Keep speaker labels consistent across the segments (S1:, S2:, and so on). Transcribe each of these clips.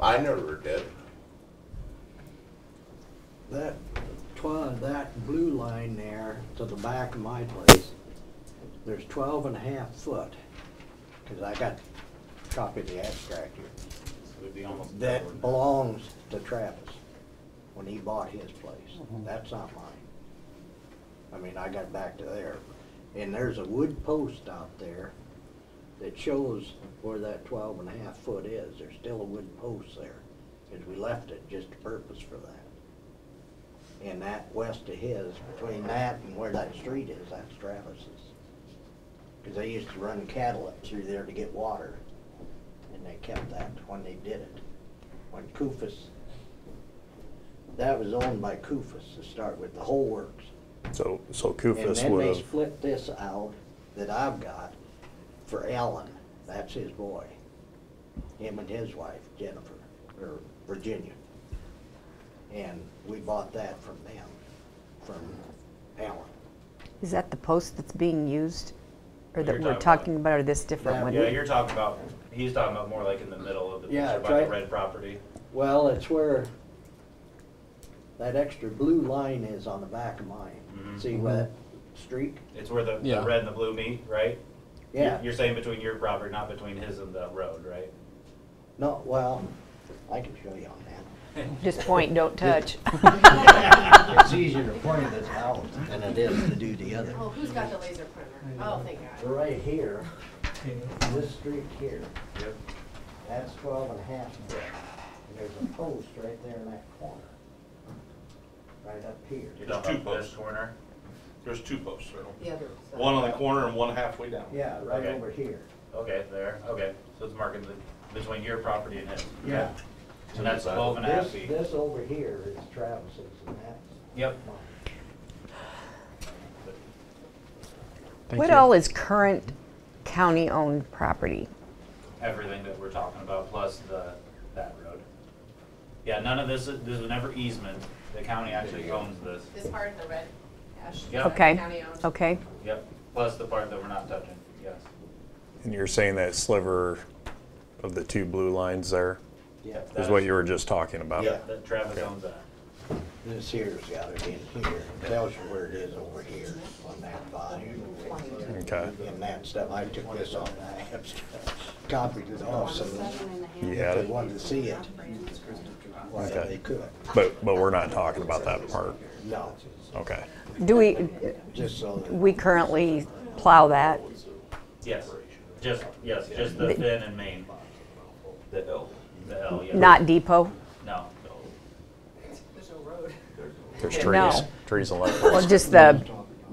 S1: I never did.
S2: That, twi- that blue line there to the back of my place, there's twelve and a half foot, cause I got a copy of the abstract here.
S3: Would be almost.
S2: That belongs to Travis when he bought his place. That's not mine. I mean, I got back to there. And there's a wood post out there that shows where that twelve and a half foot is. There's still a wooden post there, because we left it just to purpose for that. And that west of his, between that and where that street is, that's Travis's. Because they used to run cattle up through there to get water, and they kept that when they did it. When Kufus, that was owned by Kufus to start with, the whole works.
S4: So, so
S2: And
S4: Kufus
S2: then
S4: would
S2: they
S4: have,
S2: split this out that I've got for Alan, that's his boy. Him and his wife Jennifer, or Virginia. And we bought that from them, from Alan.
S5: Is that the post that's being used or that
S3: You're
S5: we're
S3: talking
S5: talking about or this different
S2: That
S5: one?
S3: Yeah, you're talking about, he's talking about more like in the middle of the
S2: Yeah,
S3: picture
S2: it's
S3: by the
S2: right-
S3: red property.
S2: Well, it's where that extra blue line is on the back of mine.
S3: Mhm.
S2: See where that streak?
S3: It's where the, the
S6: Yeah.
S3: red and the blue meet, right? You're-
S2: Yeah.
S3: You're saying between your property, not between his and the road, right?
S2: No, well, I can show you on that.
S5: Just point, don't touch.
S2: It's easier to point this out than it is to do the other.
S7: Oh, who's got the laser pointer? Oh, thank God.
S2: Right here, this streak here,
S3: Yep.
S2: that's twelve and a half foot. And There's a post right there in that corner. Right up here.
S3: You're
S1: There's
S3: talking
S1: two
S3: about this
S1: posts.
S3: corner?
S1: There's two posts, Randall.
S7: The other side.
S1: One on the corner and one halfway down.
S2: Yeah, right
S3: Okay.
S2: over here.
S3: Okay, there, okay. So it's marking the, between your property and his.
S2: Yeah.
S3: So that's twelve and a half
S2: This,
S3: feet.
S2: this over here is Travis's and that's
S3: Yep.
S2: mine.
S6: Thank
S5: What
S6: you.
S5: all is current county-owned property?
S3: everything that we're talking about, plus the, that road. Yeah, none of this, is- this was never easement, the county actually owns this,
S7: This part, the red hash.
S3: Yeah.
S5: Okay,
S7: County owned.
S5: okay.
S3: yep, plus the part that we're not touching, yes.
S4: and you're saying that sliver of the two blue lines there
S2: Yeah,
S4: is what you were just talking about?
S3: Yeah, that Travis owns that.
S2: this here's got it in here, tells you where it is over here on that volume.
S4: Okay,
S2: And that stuff, I took this on, I have copied it off so that
S4: you
S2: if
S4: had
S2: they
S4: it,
S2: wanted to see it, why
S4: Okay.
S2: they could.
S4: but, but we're not talking about that part,
S2: No,
S4: okay.
S5: Do we,
S2: just so that.
S5: we currently plow that?
S3: Yes, just, yes, just the Finn and Main. The L. The L, yeah.
S5: Not depot?
S3: No.
S7: There's no road.
S4: There's
S5: No.
S4: trees, trees and left.
S5: Well, just the,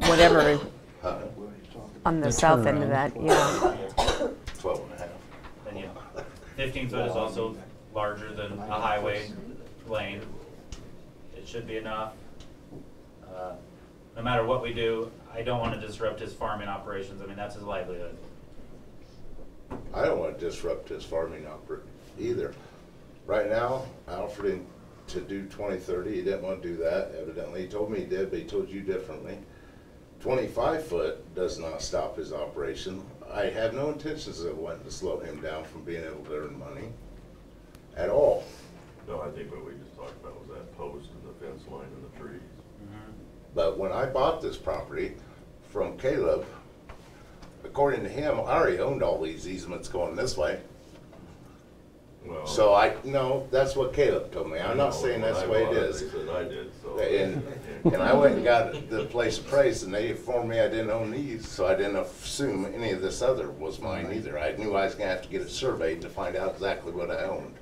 S5: whatever
S1: Huh?
S5: on the
S6: The
S5: south end of that, yeah.
S1: Twelve and a half.
S3: And yeah, fifteen foot is also larger than a highway lane. It should be enough. Uh, No matter what we do, I don't wanna disrupt his farming operations, I mean, that's his livelihood.
S1: I don't want to disrupt his farming oper either. Right now, Alfred to do twenty thirty, he didn't want to do that evidently. He told me he did, but he told you differently. Twenty-five foot does not stop his operation. I had no intentions of wanting to slow him down from being able to earn money at all.
S8: No, I think what we just talked about was that post and the fence line and the trees.
S1: But when I bought this property from Caleb, according to him, I already owned all these easements going this way.
S8: Well,
S1: So I, no, that's what Caleb told me. I'm
S8: I
S1: not
S8: know,
S1: saying
S8: Oh. when
S1: that's
S8: I
S1: the way
S8: bought
S1: it is.
S8: They said I did, so.
S1: And, and I went and got the place appraised and they informed me I didn't own these, so I didn't assume any of this other was mine either. I knew I was gonna have to get it surveyed to find out exactly what I owned.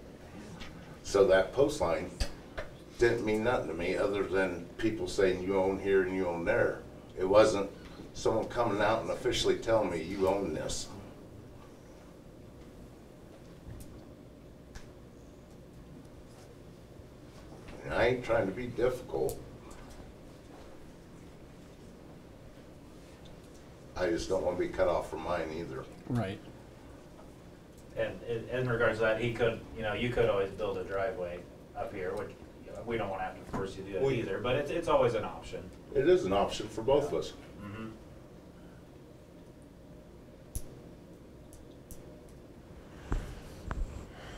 S1: So that post line didn't mean nothing to me, other than people saying you own here and you own there. It wasn't someone coming out and officially telling me you own this. And I ain't trying to be difficult. I just don't wanna be cut off from mine either.
S6: Right.
S3: And in- in regards to that, he could, you know, you could always build a driveway up here, which, you know, we don't wanna have to force you to do that
S1: We-
S3: either, but it's, it's always an option.
S1: It is an option for both of us.